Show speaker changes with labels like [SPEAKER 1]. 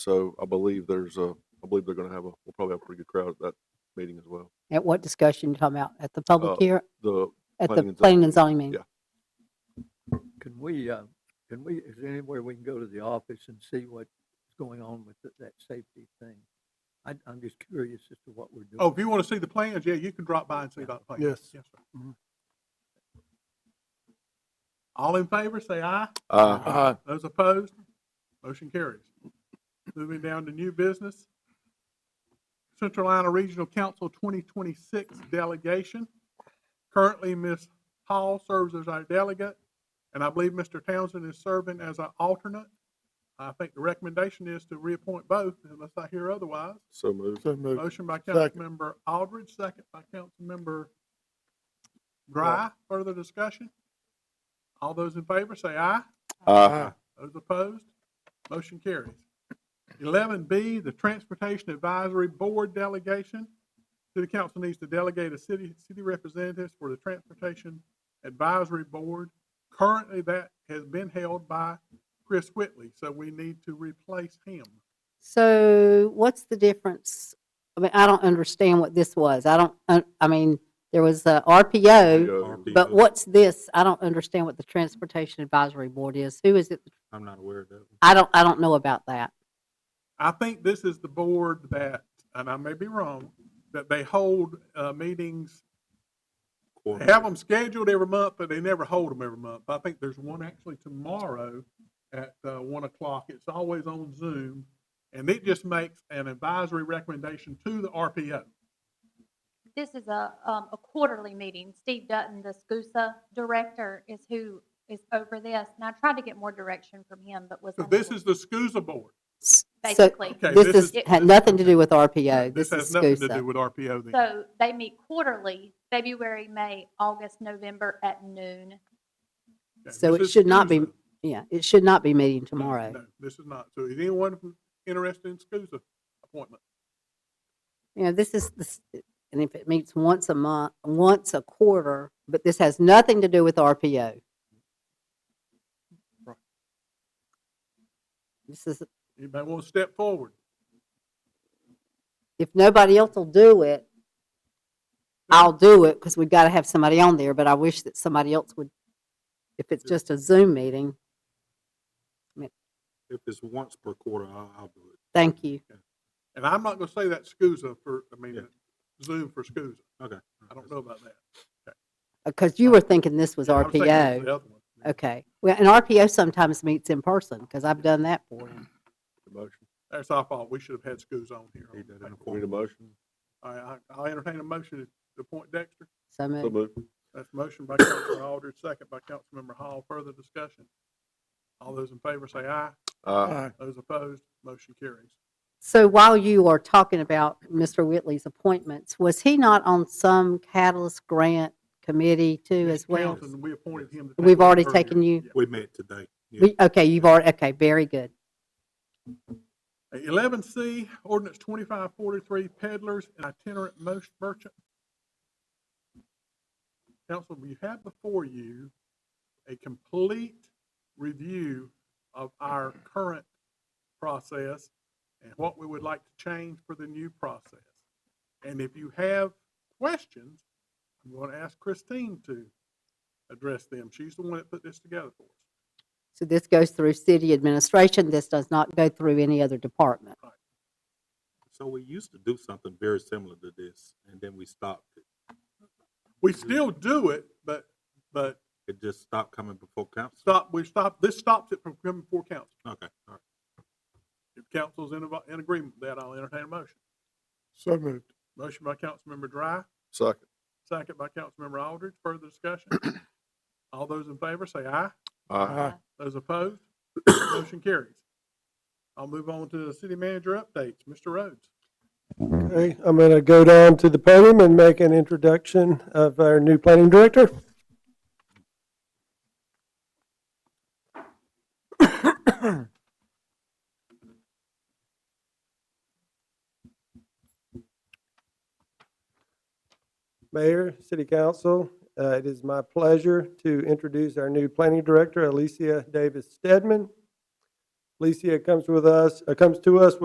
[SPEAKER 1] So I believe there's a, I believe they're going to have a, we'll probably have a pretty good crowd at that meeting as well.
[SPEAKER 2] At what discussion you talking about? At the
[SPEAKER 1] Uh,
[SPEAKER 2] public here,
[SPEAKER 1] The,
[SPEAKER 2] at
[SPEAKER 1] planning
[SPEAKER 2] the
[SPEAKER 1] and zoning
[SPEAKER 2] planning and zoning meeting?
[SPEAKER 1] yeah.
[SPEAKER 3] Can we, uh, can we, is there anywhere we can go to the office and see what's going on with th- that safety thing? I, I'm just curious as to what we're doing.
[SPEAKER 4] Oh, if you want to see the plans, yeah, you can drop by and see that plan.
[SPEAKER 5] Yes.
[SPEAKER 4] Yes, sir. Mm-hmm. All in favor, say aye.
[SPEAKER 1] Uh,
[SPEAKER 5] Uh,
[SPEAKER 4] Those opposed, motion carries. Moving down to new business. Central Iowa Regional Council 2026 delegation. Currently, Ms. Hall serves as our delegate, and I believe Mr. Townsend is serving as our alternate. I think the recommendation is to reappoint both unless I hear otherwise.
[SPEAKER 1] so moved.
[SPEAKER 5] so moved.
[SPEAKER 4] Motion by
[SPEAKER 5] Second.
[SPEAKER 4] Councilmember Aldridge, second by Councilmember Dry. Further discussion? All those in favor say aye.
[SPEAKER 1] Uh,
[SPEAKER 4] Those opposed? Motion carries. Eleven B, the Transportation Advisory Board Delegation. City Council needs to delegate a city, city representatives for the Transportation Advisory Board. Currently, that has been held by Chris Whitley, so we need to replace him.
[SPEAKER 2] So what's the difference? I mean, I don't understand what this was. I don't, I- I mean, there was a RPO,
[SPEAKER 6] um,
[SPEAKER 1] RPO.
[SPEAKER 2] but what's this? I don't understand what the Transportation Advisory Board is. Who is it?
[SPEAKER 6] I'm not aware of that. one.
[SPEAKER 2] I don't, I don't know about that.
[SPEAKER 4] I think this is the board that, and I may be wrong, that they hold uh, meetings, they have them scheduled every month, but they never hold them every month. I think there's one actually tomorrow at uh, one o'clock. It's always on Zoom. And it just makes an advisory recommendation to the RPO.
[SPEAKER 7] This is a, um, a quarterly meeting. Steve Dutton, the SCUSA director, is who is over this. And I tried to get more direction from him, but was.
[SPEAKER 4] So this
[SPEAKER 7] unable.
[SPEAKER 4] is the SCUSA board.
[SPEAKER 2] S- So
[SPEAKER 7] Basically.
[SPEAKER 4] Okay,
[SPEAKER 2] this
[SPEAKER 4] this
[SPEAKER 2] is,
[SPEAKER 4] is-
[SPEAKER 2] had nothing to do with RPO.
[SPEAKER 4] This
[SPEAKER 2] This
[SPEAKER 4] has
[SPEAKER 2] is
[SPEAKER 4] nothing to do
[SPEAKER 2] SCUSA.
[SPEAKER 4] with RPO then.
[SPEAKER 7] So they meet quarterly, February, May, August, November at noon.
[SPEAKER 4] Okay,
[SPEAKER 2] so
[SPEAKER 4] this
[SPEAKER 2] it
[SPEAKER 4] is
[SPEAKER 2] should not be
[SPEAKER 4] SCUSA.
[SPEAKER 2] Yeah, it should not be meeting
[SPEAKER 4] No,
[SPEAKER 2] tomorrow.
[SPEAKER 4] No, this is not. So is anyone interested in SCUSA appointment?
[SPEAKER 2] you know, this is, this, and if it meets once a month, once a quarter, but this has nothing to do with RPO. This is,
[SPEAKER 4] Anybody want to step forward?
[SPEAKER 2] if nobody else will do it, I'll do it, because we've got to have somebody on there, but I wish that somebody else would, if it's just a Zoom meeting,
[SPEAKER 6] If it's once per quarter, I'll, I'll do it.
[SPEAKER 2] thank you.
[SPEAKER 4] And I'm not gonna say that SCUSA for, I mean,
[SPEAKER 6] Yeah.
[SPEAKER 4] Zoom for SCUSA.
[SPEAKER 6] Okay.
[SPEAKER 4] I don't know about that.
[SPEAKER 2] Because Uh, you were thinking this was
[SPEAKER 4] Yeah, I was thinking it was
[SPEAKER 2] RPO.
[SPEAKER 4] the other one.
[SPEAKER 2] Okay, well, and RPO sometimes meets in person, because I've done that for them.
[SPEAKER 1] Motion.
[SPEAKER 4] That's our fault. We should have had SCUSA on here.
[SPEAKER 6] Need that in the
[SPEAKER 1] We Need a
[SPEAKER 6] form.
[SPEAKER 1] motion?
[SPEAKER 4] All right, I, I'll entertain a motion to appoint Dexter.
[SPEAKER 2] So
[SPEAKER 1] So
[SPEAKER 2] moved.
[SPEAKER 1] moved.
[SPEAKER 4] That's a motion by Councilmember Aldridge, second by Councilmember Hall. Further discussion? All those in favor say aye.
[SPEAKER 1] Uh,
[SPEAKER 5] Aye.
[SPEAKER 4] Those opposed, motion carries.
[SPEAKER 2] So while you are talking about Mr. Whitley's appointments, was he not on some catalyst grant committee too as
[SPEAKER 4] Mr.
[SPEAKER 2] well?
[SPEAKER 4] Townsend, We appointed him. to take
[SPEAKER 2] We've
[SPEAKER 4] over
[SPEAKER 2] already
[SPEAKER 4] earlier.
[SPEAKER 2] taken you-
[SPEAKER 4] Yeah.
[SPEAKER 6] We met today. Yeah.
[SPEAKER 2] We- Okay, you've already, okay, very good.
[SPEAKER 4] Eleven C, ordinance twenty-five forty-three, peddlers and itinerant most merchant. Council, you have before you a complete review of our current process and what we would like to change for the new process. And if you have questions, I'm going to ask Christine to address them. She's the one that put this together for us.
[SPEAKER 2] So this goes through city administration. This does not go through any other department.
[SPEAKER 6] So we used to do something very similar to this, and then we stopped it.
[SPEAKER 4] We still do it, but, but
[SPEAKER 6] It just stopped coming before council.
[SPEAKER 4] stop, we stop, this stops it from coming before council.
[SPEAKER 6] Okay, all right.
[SPEAKER 4] If council's in, avo- in agreement with that, I'll entertain a motion.
[SPEAKER 5] So moved.
[SPEAKER 4] Motion by Councilmember Dry,
[SPEAKER 1] second.
[SPEAKER 4] second by Councilmember Aldridge. Further discussion? All those in favor say aye.
[SPEAKER 1] Uh,
[SPEAKER 5] Aye.
[SPEAKER 4] Those opposed? Motion carries. I'll move on to the city manager updates. Mr. Rhodes.
[SPEAKER 5] Okay, I'm going to go down to the podium and make an introduction of our new planning director. Mayor, City Council, uh, it is my pleasure to introduce our new planning director, Alicia Davis Stedman. Licia comes with us, uh, comes to us